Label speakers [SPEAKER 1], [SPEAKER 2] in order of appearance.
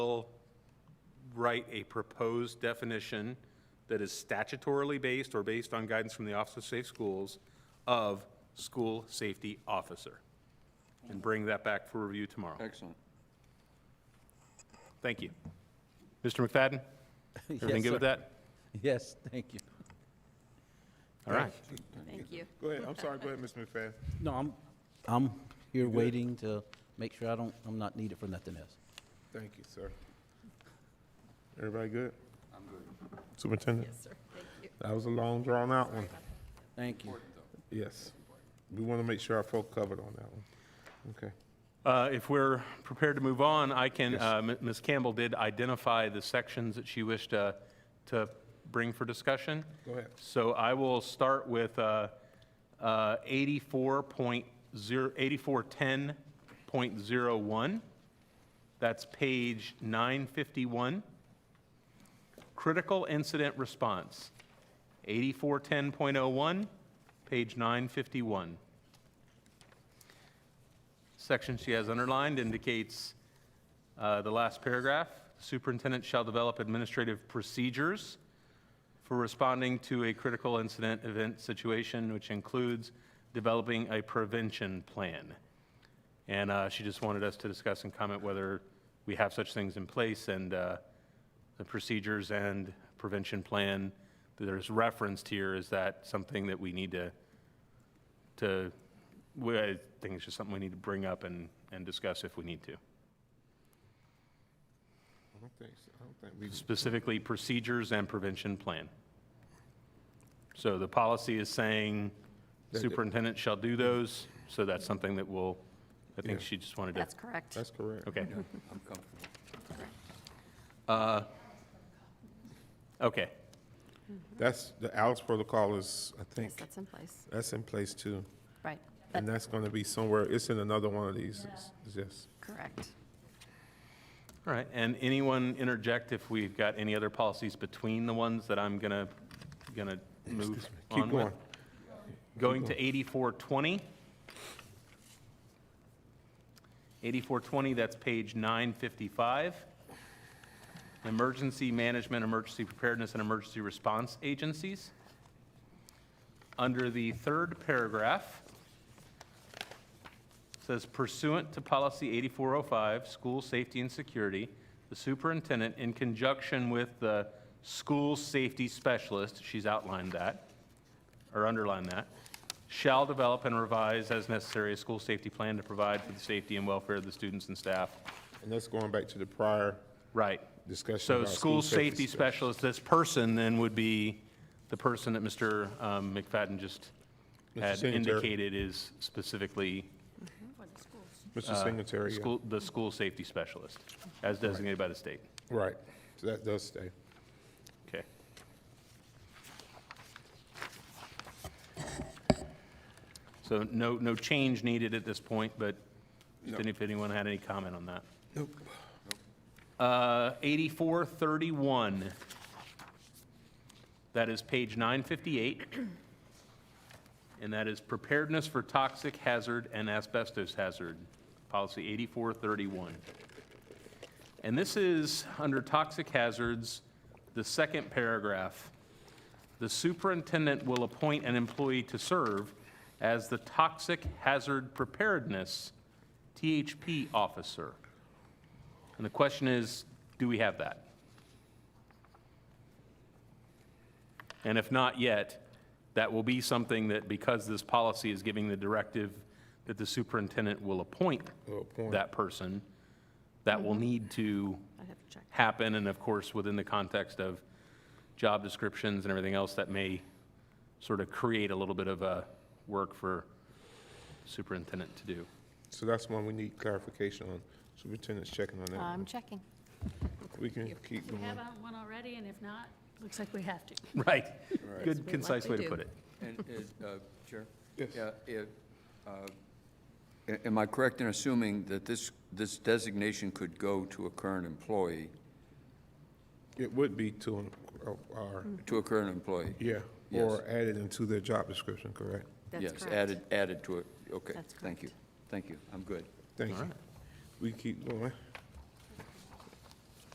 [SPEAKER 1] will write a proposed definition that is statutorily based or based on guidance from the Office of Safe Schools of school safety officer. And bring that back for review tomorrow.
[SPEAKER 2] Excellent.
[SPEAKER 1] Thank you. Mr. McFadden? Everything
[SPEAKER 3] Yes,
[SPEAKER 1] good with
[SPEAKER 3] sir.
[SPEAKER 1] that?
[SPEAKER 3] Yes, thank you.
[SPEAKER 1] All right.
[SPEAKER 4] Thank you.
[SPEAKER 5] Go ahead, I'm sorry, go ahead, Mr. McFadden.
[SPEAKER 3] No, I'm, I'm here waiting to make sure I don't, I'm not needed for nothing else.
[SPEAKER 5] Thank you, sir. Everybody good? I'm good. Superintendent?
[SPEAKER 4] Yes, sir. Thank you.
[SPEAKER 5] That was a long, drawn-out one.
[SPEAKER 3] Thank you.
[SPEAKER 5] Yes. We want to make sure our folk covered on that one. Okay.
[SPEAKER 1] Uh, If we're prepared to move on, I can, uh, M- Ms. Campbell did identify the sections that she wished uh, to bring for discussion.
[SPEAKER 5] Go ahead.
[SPEAKER 1] So I will start with uh, uh, 84.0, 8410.01. That's page 951. Critical incident response, 8410.01, page 951 section she has underlined indicates uh, the last paragraph. Superintendent shall develop administrative procedures for responding to a critical incident event situation, which includes developing a prevention plan. And uh, she just wanted us to discuss and comment whether we have such things in place and uh, the procedures and prevention plan that is referenced here, is that something that we need to to, we- I think it's just something we need to bring up and, and discuss if we need to.
[SPEAKER 5] I don't think, so. I don't think we,
[SPEAKER 1] Specifically, procedures and prevention plan. So the policy is saying
[SPEAKER 5] it-
[SPEAKER 1] superintendent shall do those, so that's something that will, I think
[SPEAKER 5] Yeah.
[SPEAKER 1] she just wanted to.
[SPEAKER 4] That's correct.
[SPEAKER 5] that's correct.
[SPEAKER 1] Okay.
[SPEAKER 2] I'm comfortable.
[SPEAKER 1] Uh, Okay,
[SPEAKER 5] That's, the Alice protocol is, I
[SPEAKER 4] Yes,
[SPEAKER 5] think,
[SPEAKER 4] that's in place.
[SPEAKER 5] that's in place too.
[SPEAKER 4] Right.
[SPEAKER 5] And
[SPEAKER 4] But,
[SPEAKER 5] that's going to be somewhere, it's in another one of these, yes.
[SPEAKER 4] correct.
[SPEAKER 1] all right. And anyone interject if we've got any other policies between the ones that I'm gonna, gonna move
[SPEAKER 5] Keep
[SPEAKER 1] on with?
[SPEAKER 5] going.
[SPEAKER 1] Going to 8420. 8420, that's page 955. Emergency Management, Emergency Preparedness, and Emergency Response Agencies. Under the third paragraph, says pursuant to policy 8405, school safety and security, the superintendent, in conjunction with the school safety specialist, she's outlined that, or underline that, shall develop and revise as necessary a school safety plan to provide for the safety and welfare of the students and staff.
[SPEAKER 5] And that's going back to the prior
[SPEAKER 1] Right.
[SPEAKER 5] discussion.
[SPEAKER 1] So
[SPEAKER 5] about
[SPEAKER 1] school safety
[SPEAKER 5] spec-
[SPEAKER 1] specialist, this person then would be the person that Mr. um, McFadden just
[SPEAKER 5] Mr.
[SPEAKER 1] had
[SPEAKER 5] Singletary.
[SPEAKER 1] indicated is specifically
[SPEAKER 5] Mr. Singletary, yeah.
[SPEAKER 1] Uh, school, the school safety specialist, as designated by the state.
[SPEAKER 5] right. So that does stay.
[SPEAKER 1] Okay. So no, no change needed at this point, but just any- if anyone had any comment on that.
[SPEAKER 5] Nope.
[SPEAKER 1] Uh, 8431. That is page 958. And that is preparedness for toxic hazard and asbestos hazard, policy 8431. And this is, under toxic hazards, the second paragraph. The superintendent will appoint an employee to serve as the toxic hazard preparedness THP officer. And the question is, do we have that? And if not yet, that will be something that, because this policy is giving the directive that the superintendent will appoint
[SPEAKER 5] Will appoint.
[SPEAKER 1] that person, that will need to
[SPEAKER 4] I have to check.
[SPEAKER 1] happen, and of course, within the context of job descriptions and everything else, that may sort of create a little bit of uh work for superintendent to do.
[SPEAKER 5] So that's one we need clarification on. Superintendent's checking on that.
[SPEAKER 4] I'm
[SPEAKER 5] one.
[SPEAKER 4] checking.
[SPEAKER 5] We can keep
[SPEAKER 6] We
[SPEAKER 5] going.
[SPEAKER 6] have uh, one already, and if not, looks like we have to.
[SPEAKER 1] Right.
[SPEAKER 2] Right.
[SPEAKER 1] Good, concise way to
[SPEAKER 4] do.
[SPEAKER 1] put it.
[SPEAKER 2] And, uh, uh, Chair?
[SPEAKER 5] Yes.
[SPEAKER 2] Yeah, it, uh, a- Am I correct in assuming that this, this designation could go to a current employee,
[SPEAKER 5] It would be to, an- uh, our,
[SPEAKER 2] to a current employee?
[SPEAKER 5] yeah,
[SPEAKER 2] Yes.
[SPEAKER 5] or added into their job description, correct?
[SPEAKER 4] That's
[SPEAKER 2] Yes,
[SPEAKER 4] correct.
[SPEAKER 2] added, added to it, okay.
[SPEAKER 4] That's
[SPEAKER 2] Thank you, thank you, I'm good.
[SPEAKER 5] Thank you. We keep going.